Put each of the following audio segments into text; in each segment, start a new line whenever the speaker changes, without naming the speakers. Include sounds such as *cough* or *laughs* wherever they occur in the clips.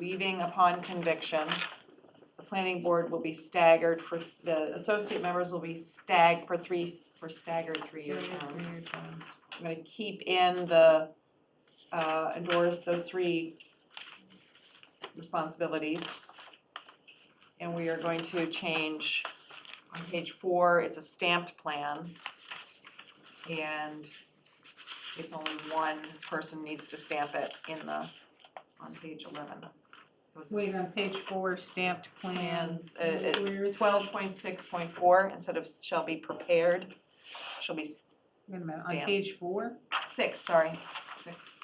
leaving upon conviction. The planning board will be staggered for, the associate members will be stag, for three, for staggered three-year terms. I'm gonna keep in the, uh, endorse those three responsibilities. And we are going to change, on page four, it's a stamped plan. And it's only one person needs to stamp it in the, on page eleven. So it's a
Wait, on page four, stamped plans.
plans, uh,
Where
it's
is it?
twelve point six point four, instead of shall be prepared, shall be s-
Wait a minute, on
Stamp.
page four?
six, sorry, six.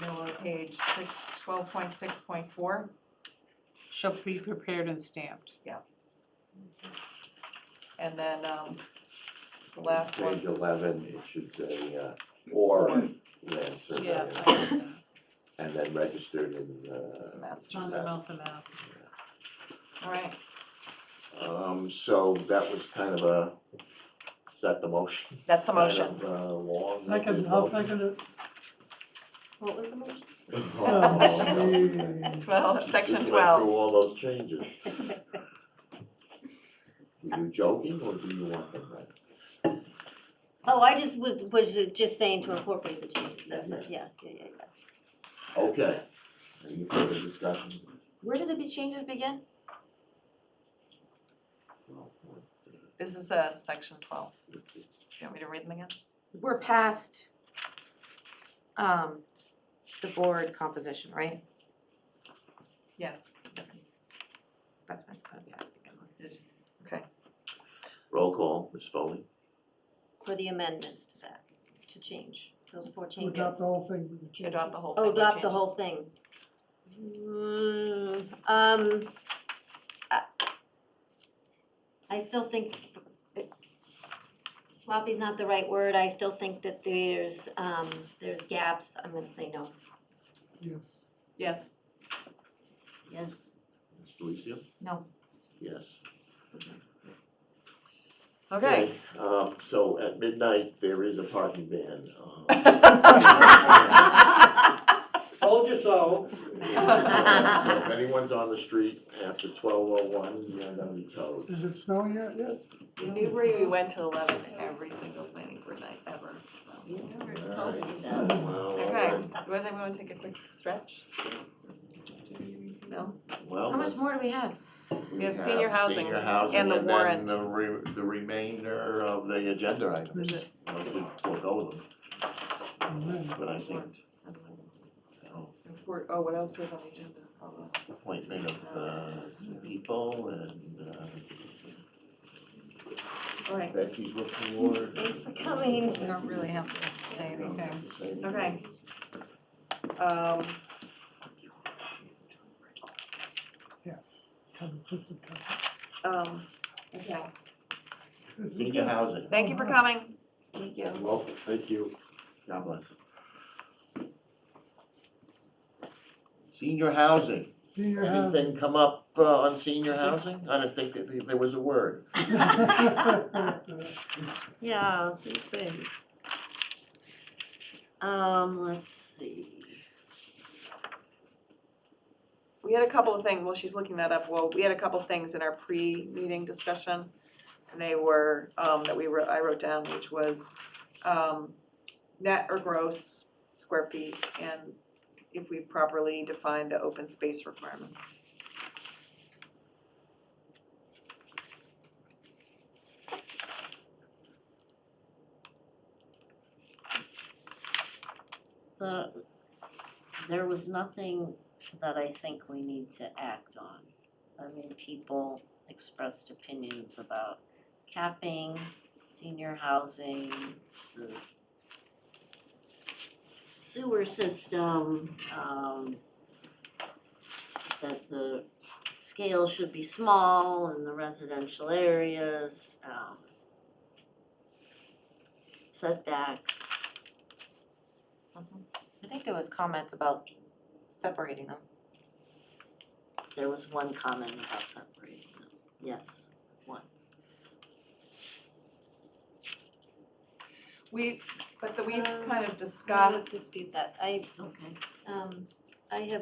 Middle of page six, twelve point six point four,
Shall be prepared and stamped.
and then, um, the last
Page
one,
eleven, it should say, uh, or land survey, and then registered in, uh,
Massachusetts,
Commonwealth of Mass.
alright,
um, so that was kind of a, is that the motion?
that's the motion.
Kind of, uh, long.
Second,
*laughs*
I'll second it.
What was the motion?
Oh,
Twelve, section
Just went through
twelve,
all those changes. Were you joking, or do you want them read?
Oh, I just was, was just saying to incorporate the changes, that's, yeah, yeah, yeah, yeah.
Okay, any further discussion?
Where did the big changes begin?
Well, uh,
this is, uh, section twelve, do you want me to read them again?
We're past um the board composition, right?
Yes,
That's my, that's, yeah, I think I'm on.
It is-
Roll call, Ms. Foley?
For the amendments to that, to change, those four
To
changes.
adopt the whole thing. with the
you adopt the whole thing.
Oh,
you
adopt the
change it.
whole thing. Mm, um, I, I still think sloppy's not the right word, I still think that there's, um, there's gaps, I'm gonna say no.
changes. Yes.
Yes,
Yes.
Ms. Delicio?
No.
Yes.
okay.
Um, so at midnight, there is a parking ban.
*laughs*
um,
Told you so.
So if anyone's on the street after twelve oh one, you're gonna be towed.
Is it snowing yet yet?
In Newbury, *laughs* we went to eleven every single planning board night ever, so.
Well, all
Okay,
right.
do I think we wanna take a quick stretch? No?
Well,
How much
let's-
more do we have?
We have senior housing
senior housing
and the warrant.
then the re- the remainder of the agenda items.
it?
Well, we forego them,
Amen.
but I think, you know,
We're- Oh, what else do we have on the agenda? Oh, uh,
appointment of, uh, people and, uh,
All right,
Betsy's report.
Thanks for coming.
We don't really have to say anything.
okay. Um,
Yes. Have a twisted cup.
um, okay,
*laughs*
Senior housing,
thank you for coming.
Thank you.
well, thank you, God bless. Senior housing,
Senior housing.
anything come up uh, on senior housing? I didn't think that there was a word.
*laughs*
Yeah, two things. Um, let's see.
We had a couple of things, well, she's looking that up, well, we had a couple of things in our pre-meeting discussion. And they were, um, that we wrote, I wrote down, which was, um, net or gross square feet and if we've properly defined the open space requirements.
The, there was nothing that I think we need to act on. I mean, people expressed opinions about capping, senior housing, the sewer system, um, that the scale should be small in the residential areas, um, setbacks.
I think there was comments about separating them.
There was one comment about separating them, yes, one.
We've, but the, we've
Um,
kind of discussed
dispute that, I. Okay. Um, I have